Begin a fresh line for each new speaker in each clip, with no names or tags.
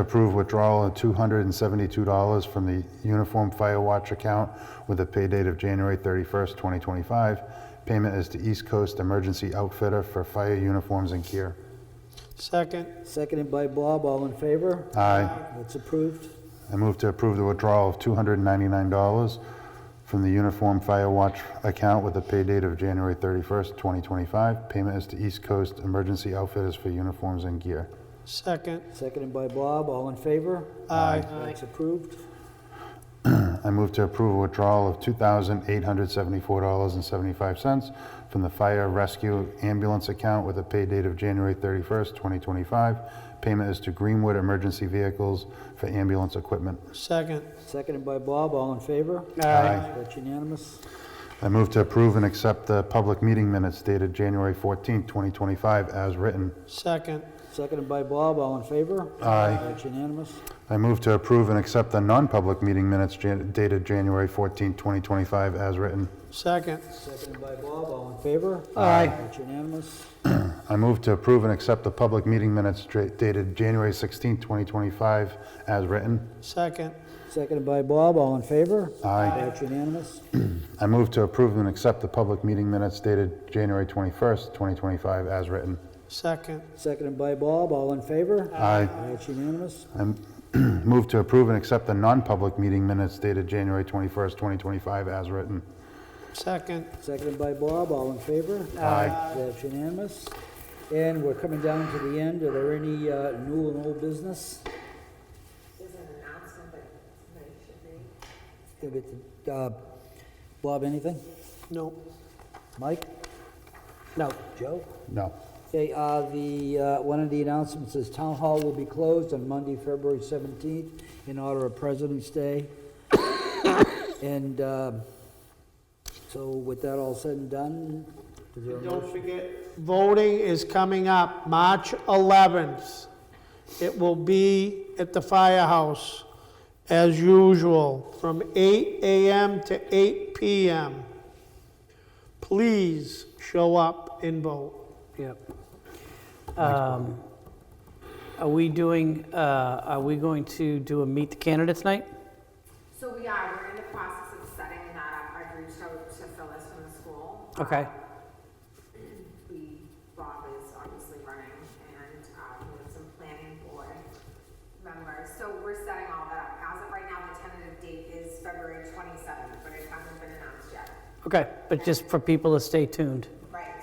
Approve withdrawal of $272 from the Uniform Fire Watch account with a pay date of January 31st, 2025. Payment is to East Coast Emergency Outfitter for fire uniforms and gear.
Second,
Seconded by Bob, all in favor?
Aye.
That's approved.
I move to approve the withdrawal of $299 from the Uniform Fire Watch account with a pay date of January 31st, 2025. Payment is to East Coast Emergency Outfitters for uniforms and gear.
second,
Seconded by Bob, all in favor?
aye.
That's approved.
I move to approve a withdrawal of $2,874.75 from the Fire Rescue Ambulance account with a pay date of January 31st, 2025. Payment is to Greenwood Emergency Vehicles for ambulance equipment.
Second,
Seconded by Bob, all in favor?
Aye.
That's unanimous.
I move to approve and accept the public meeting minutes dated January 14th, 2025, as written.
second,
Seconded by Bob, all in favor?
Aye.
That's unanimous.
I move to approve and accept the non-public meeting minutes jan- dated January 14th, 2025, as written.
second,
Seconded by Bob, all in favor?
Aye.
That's unanimous.
I move to approve and accept the public meeting minutes dra- dated January 16th, 2025, as written.
second,
Seconded by Bob, all in favor?
Aye.
That's unanimous.
I move to approve and accept the public meeting minutes dated January 21st, 2025, as written.
second,
Seconded by Bob, all in favor?
Aye.
That's unanimous.
I move to approve and accept the non-public meeting minutes dated January 21st, 2025, as written.
second,
Seconded by Bob, all in favor?
Aye.
That's unanimous. And we're coming down to the end. Are there any uh, new and old business?
There's an announcement that tonight should be.
Give it to, uh, Bob, anything?
no,
Mike? No. Joe?
No.
Okay, uh, the, uh, one of the announcements is Town Hall will be closed on Monday, February 17th in honor of President's Day. And um, so with that all said and done, is there a
Don't forget, voting is coming up, March 11th. It will be at the firehouse, as usual, from 8 AM to 8 PM. Please show up and vote.
Yep. Um, Are we doing, uh, are we going to do a meet the candidates night?
So we are, we're in the process of setting that up. I've reached out to Phyllis from the school.
Okay.
We, Bob is obviously running and um, we have some planning board members. So we're setting all that up. As of right now, the tentative date is February twenty-seventh, but it hasn't been announced yet.
Okay, but just for people to stay tuned.
Right.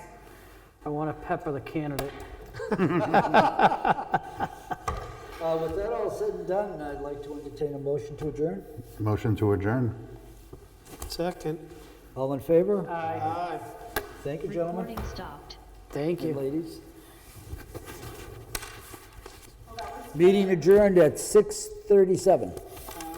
I want to pepper the candidate.
Uh, With that all said and done, I'd like to entertain a motion to adjourn.
Motion to adjourn.
Second.
All in favor?
Aye.
Thank you, gentlemen
Recording stopped.
Thank
and
you.
ladies. Meeting adjourned at 6:37.